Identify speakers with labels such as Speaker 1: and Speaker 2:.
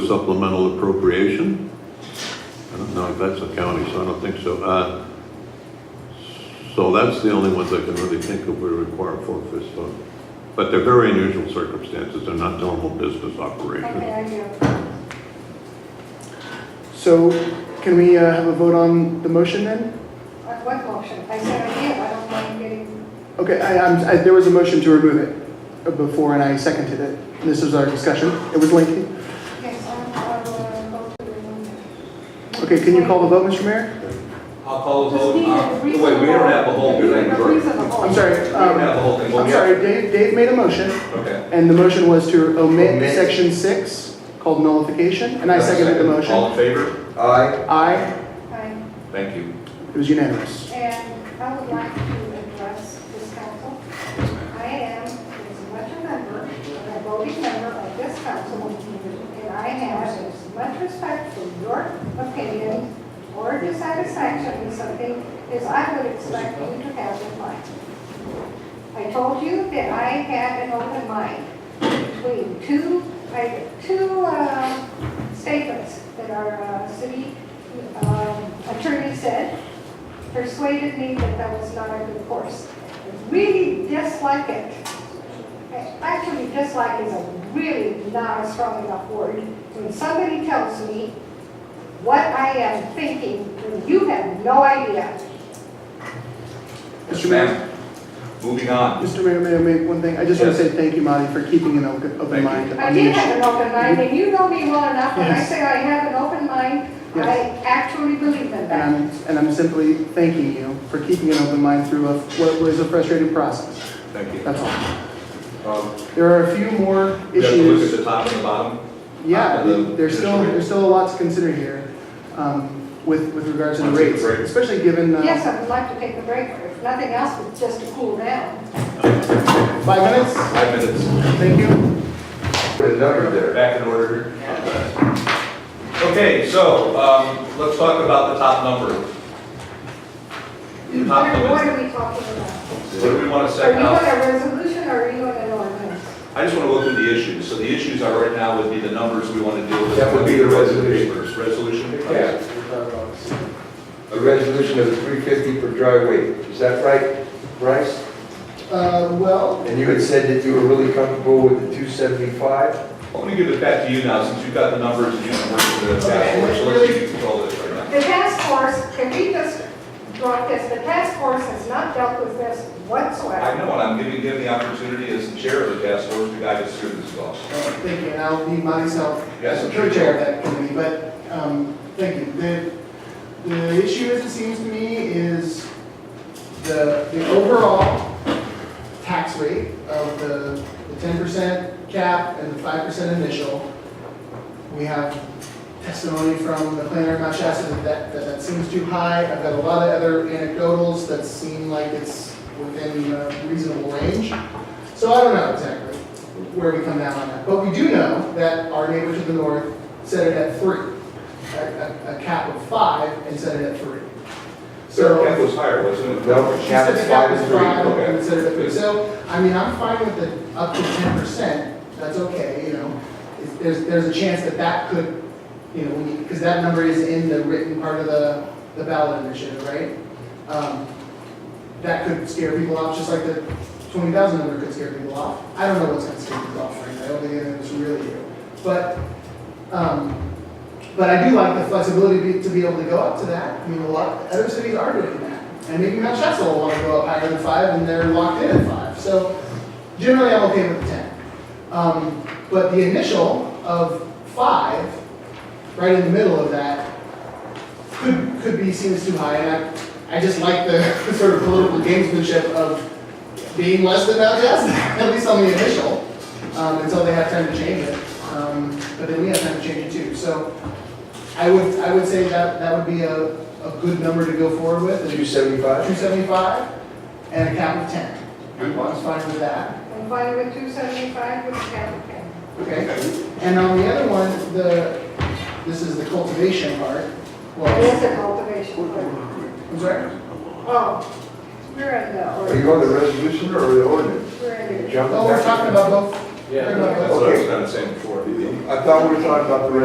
Speaker 1: supplemental appropriation. I don't know if that's the county, so I don't think so. Uh, So that's the only ones I can really think of would require forfeits, so. But they're very unusual circumstances, they're not normal business
Speaker 2: Okay,
Speaker 1: operations.
Speaker 2: I do.
Speaker 3: So can we uh, have a vote on the motion then?
Speaker 2: On What motion? I said I did, I don't mind getting,
Speaker 3: Okay, I, I'm, I, there was a motion to remove it uh, before and I seconded it. This was our discussion. It was lengthy.
Speaker 2: yes, I'm- I'll uh, go to the room.
Speaker 3: Okay, can you call the vote, Mr. Mayor?
Speaker 4: I'll call the
Speaker 2: Just
Speaker 4: vote.
Speaker 2: need
Speaker 4: Uh,
Speaker 2: a
Speaker 4: Wait, we don't have the whole thing.
Speaker 2: reasonable-
Speaker 4: We
Speaker 2: reasonable.
Speaker 3: I'm sorry,
Speaker 4: don't
Speaker 3: um,
Speaker 4: have the whole thing.
Speaker 3: I'm sorry, Dave, Dave made a motion
Speaker 4: Okay.
Speaker 3: and the motion was to omit
Speaker 5: Omit.
Speaker 3: section six called nullification and I seconded the
Speaker 4: All
Speaker 3: motion.
Speaker 4: in favor?
Speaker 5: Aye.
Speaker 3: Aye,
Speaker 2: Fine.
Speaker 4: Thank you.
Speaker 3: it was unanimous.
Speaker 2: And I would like to address this council. I am, as much a member, a voting member of this council, and I have as much respect for your opinion or dissatisfaction with something as I would expect you to have with mine. I told you that I had an open mind between two, I, two, uh, statements that our, uh, city, um, attorney said persuaded me that that was not a good course. I Really dislike it. I Actually, dislike is a really not a strong enough word. When somebody tells me what I am thinking, when you have no idea.
Speaker 4: Yes, ma'am. Moving on.
Speaker 3: Mr. Mayor, may I make one thing? I just want to
Speaker 4: Yes.
Speaker 3: say thank you, Monty, for keeping an open open
Speaker 4: you.
Speaker 3: mind
Speaker 2: I
Speaker 3: on the
Speaker 2: did have
Speaker 3: issue.
Speaker 2: an open mind, and you know me well enough, when I
Speaker 3: Yes.
Speaker 2: say I have an open mind, I actually believe in
Speaker 3: And
Speaker 2: that.
Speaker 3: I'm, and I'm simply thanking you for keeping an open mind through a- what was a frustrating process.
Speaker 4: Thank you.
Speaker 3: That's all.
Speaker 4: Um,
Speaker 3: There are a few more
Speaker 4: We have to look at
Speaker 3: issues.
Speaker 4: the top and the bottom.
Speaker 3: Yeah,
Speaker 4: top of the
Speaker 3: there's still,
Speaker 4: initial-
Speaker 3: there's still a lot to consider here um, with, with regards to the
Speaker 4: Wanna take a
Speaker 3: rates,
Speaker 4: break?
Speaker 3: especially given uh,
Speaker 2: Yes, I would like to take a break, or if nothing else, but just to cool down.
Speaker 3: five minutes.
Speaker 4: Five minutes.
Speaker 3: Thank you.
Speaker 5: Put a number there.
Speaker 4: Back in order here. Okay, so, um, let's talk about the top number. The
Speaker 2: What
Speaker 4: Top
Speaker 2: are- what
Speaker 4: limits.
Speaker 2: are we talking about?
Speaker 4: What do we want to
Speaker 2: Are
Speaker 4: set
Speaker 2: you
Speaker 4: out?
Speaker 2: on a resolution or are you on an ordinance?
Speaker 4: I just want to go through the issues. So the issues are right now would be the numbers we want to deal with.
Speaker 5: That would be the resolution.
Speaker 4: First, Resolution.
Speaker 5: Yeah. A resolution of three fifty per dry weight, is that right, Bryce?
Speaker 3: Uh, well.
Speaker 5: And you had said that you were really comfortable with the two seventy-five?
Speaker 4: I'm going to give it back to you now, since you've got the numbers and you can work with the task force, so let's see if you control this right now.
Speaker 2: The task force, can we just drop this, the task force has not dealt with this
Speaker 4: I
Speaker 2: whatsoever.
Speaker 4: know, and I'm giving him the opportunity as the chair of the task force to guide us through this law.
Speaker 3: Uh, Thank you, and I'll be myself
Speaker 4: Yes, I'm sure
Speaker 3: co-chair of that committee, but, um, thank you. The, the issue, as it seems to me, is the, the overall tax rate of the ten percent cap and the five percent initial. We have testimony from the planner of Mount Shasta that that, that that seems too high. I've got a lot of other anecdotals that seem like it's within a reasonable range. So I don't know exactly where we come down on that. But we do know that our neighbor to the north set it at three, a, a, a cap of five and set it at three.
Speaker 4: Sir,
Speaker 3: So.
Speaker 4: Kent was higher, wasn't it?
Speaker 5: No,
Speaker 3: She
Speaker 5: cap
Speaker 3: said
Speaker 5: is
Speaker 3: the cap
Speaker 5: five
Speaker 3: was
Speaker 5: and three.
Speaker 3: five,
Speaker 4: okay.
Speaker 3: and instead of three, so, I mean, I'm fine with the up to ten percent, that's okay, you know. It's- There's, there's a chance that that could, you know, we, because that number is in the written part of the, the ballot initiative, right? Um, That could scare people off, just like the twenty thousand number could scare people off. I don't know what's gonna scare people off, frankly, I don't think anyone's really do. But, um, but I do like the flexibility be- to be able to go up to that. I mean, a lot, other cities are doing that. And maybe Mount Shasta will want to go up higher than five, and they're locked in at five. So generally, I'm okay with the ten. Um, But the initial of five, right in the middle of that, could, could be seen as too high. And I, I just like the sort of political gamesmanship of being less than Mount Shasta, at least on the initial, um, until they have time to change it. Um, But then we have time to change it too. So I would, I would say that, that would be a, a good number to go forward with,
Speaker 5: Two
Speaker 3: is
Speaker 5: seventy-five?
Speaker 3: two seventy-five and a cap of ten. I'm fine with that,
Speaker 2: And by the way, two seventy-five was cap ten.
Speaker 3: okay? And on the other one, the, this is the cultivation part,
Speaker 2: That
Speaker 3: well,
Speaker 2: is a cultivation plan.
Speaker 3: I'm sorry?
Speaker 2: Oh, we're in the
Speaker 5: Are you on
Speaker 2: ordinance.
Speaker 5: the resolution or the ordinance?
Speaker 2: We're in the.
Speaker 5: Jumping
Speaker 3: Oh, we're
Speaker 5: back.
Speaker 3: talking about both. We're talking about both.
Speaker 4: That's what I was kind of saying before.
Speaker 5: I thought we were talking about the